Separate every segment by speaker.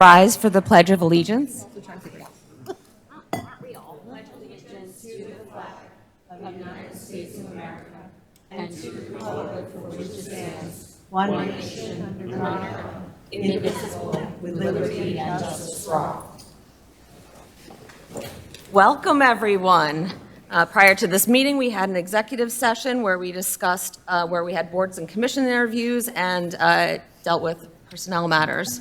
Speaker 1: Rise for the Pledge of Allegiance. Welcome, everyone. Uh, Prior to this meeting, we had an executive session where we discussed, uh, where we had boards and commission interviews and uh, dealt with personnel matters.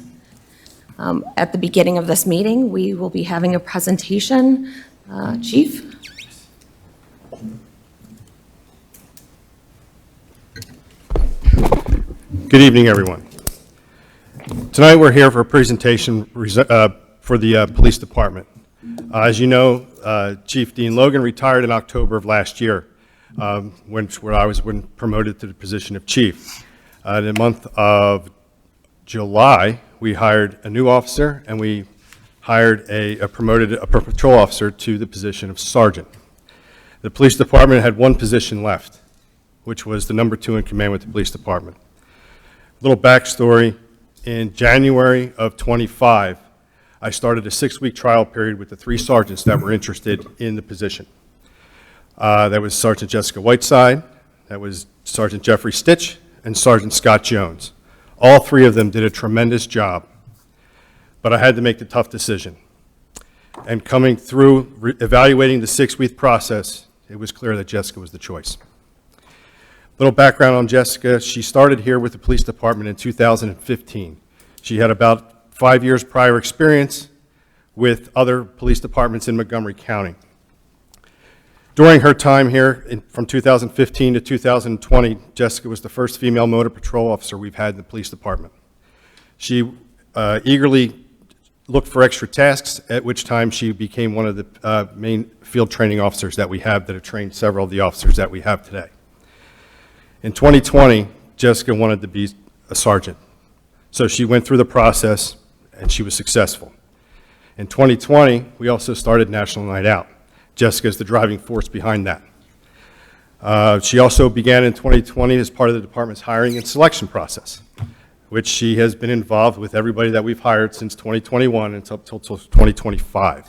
Speaker 1: Um, At the beginning of this meeting, we will be having a presentation. Uh, Chief?
Speaker 2: Good evening, everyone. Tonight, we're here for a presentation res- uh, for the uh, Police Department. Uh, As you know, uh, Chief Dean Logan retired in October of last year, um, when where I was when promoted to the position of chief. Uh, In the month of July, we hired a new officer, and we hired a a promoted, a patrol officer to the position of sergeant. The Police Department had one position left, which was the number two in command with the Police Department little backstory, in January of '25, I started a six-week trial period with the three sergeants that were interested in the position. Uh, That was Sergeant Jessica Whiteside, that was Sergeant Jeffrey Stitch, and Sergeant Scott Jones. All three of them did a tremendous job, but I had to make the tough decision. And coming through, re- evaluating the six-week process, it was clear that Jessica was the choice. Little background on Jessica, she started here with the police department in 2015. She had about five years prior experience with other police departments in Montgomery County. During her time here, in- from 2015 to 2020, Jessica was the first female motor patrol officer we've had in the police department. She uh, eagerly looked for extra tasks, at which time she became one of the uh, main field training officers that we have, that have trained several of the officers that we have today. In 2020, Jessica wanted to be a sergeant, so she went through the process, and she was successful. In 2020, we also started National Night Out. Jessica is the driving force behind that. Uh, She also began in 2020 as part of the department's hiring and selection process, which she has been involved with everybody that we've hired since 2021 until till- till 2025.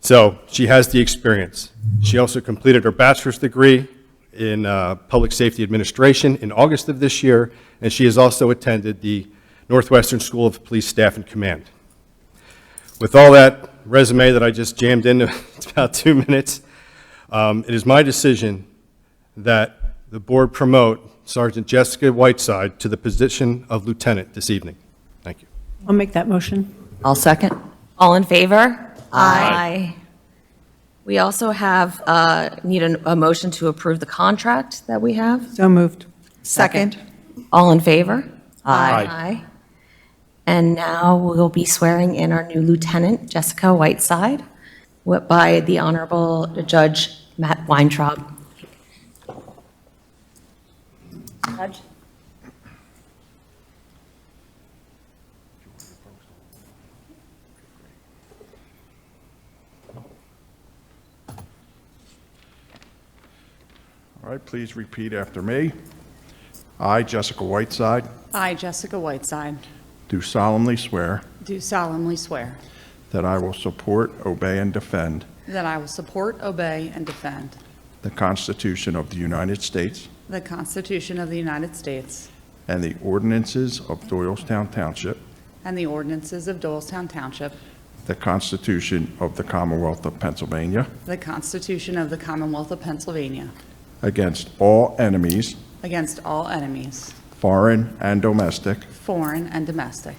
Speaker 2: So she has the experience. She also completed her bachelor's degree in uh, Public Safety Administration in August of this year, and she has also attended the Northwestern School of Police Staff and Command. With all that resume that I just jammed into about two minutes, um, it is my decision that the board promote Sergeant Jessica Whiteside to the position of lieutenant this evening. Thank you.
Speaker 3: I'll make that motion.
Speaker 4: I'll second.
Speaker 1: All in favor? Aye. We also have, uh, need a a motion to approve the contract that we have.
Speaker 3: So moved.
Speaker 4: Second.
Speaker 1: All in favor?
Speaker 2: Aye.
Speaker 1: Aye. And now we'll be swearing in our new lieutenant, Jessica Whiteside, wi- by the Honorable Judge Matt Weintraub. Judge?
Speaker 5: All right, please repeat after me. I, Jessica Whiteside,
Speaker 6: I, Jessica Whiteside,
Speaker 5: do solemnly swear
Speaker 6: do solemnly swear
Speaker 5: that I will support, obey, and defend
Speaker 6: that I will support, obey, and defend
Speaker 5: the Constitution of the United States
Speaker 6: the Constitution of the United States
Speaker 5: and the ordinances of Doylestown Township,
Speaker 6: and the ordinances of Doylestown Township,
Speaker 5: the Constitution of the Commonwealth of Pennsylvania,
Speaker 6: the Constitution of the Commonwealth of Pennsylvania,
Speaker 5: against all enemies,
Speaker 6: against all enemies,
Speaker 5: foreign and domestic,
Speaker 6: foreign and domestic,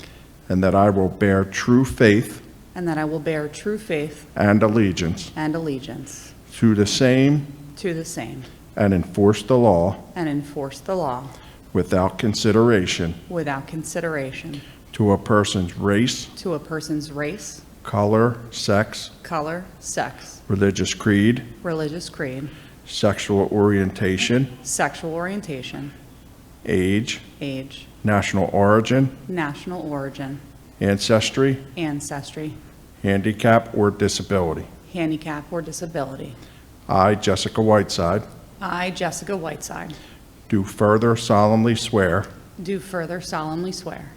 Speaker 5: and that I will bear true faith
Speaker 6: and that I will bear true faith
Speaker 5: and allegiance
Speaker 6: and allegiance
Speaker 5: to the same
Speaker 6: to the same
Speaker 5: and enforce the law
Speaker 6: and enforce the law
Speaker 5: without consideration
Speaker 6: without consideration
Speaker 5: to a person's race,
Speaker 6: to a person's race,
Speaker 5: color, sex,
Speaker 6: color, sex,
Speaker 5: religious creed,
Speaker 6: religious creed,
Speaker 5: sexual orientation,
Speaker 6: sexual orientation,
Speaker 5: age,
Speaker 6: age,
Speaker 5: national origin,
Speaker 6: national origin,
Speaker 5: ancestry,
Speaker 6: ancestry,
Speaker 5: handicap, or disability.
Speaker 6: handicap, or disability.
Speaker 5: I, Jessica Whiteside,
Speaker 6: I, Jessica Whiteside,
Speaker 5: do further solemnly swear
Speaker 6: do further solemnly swear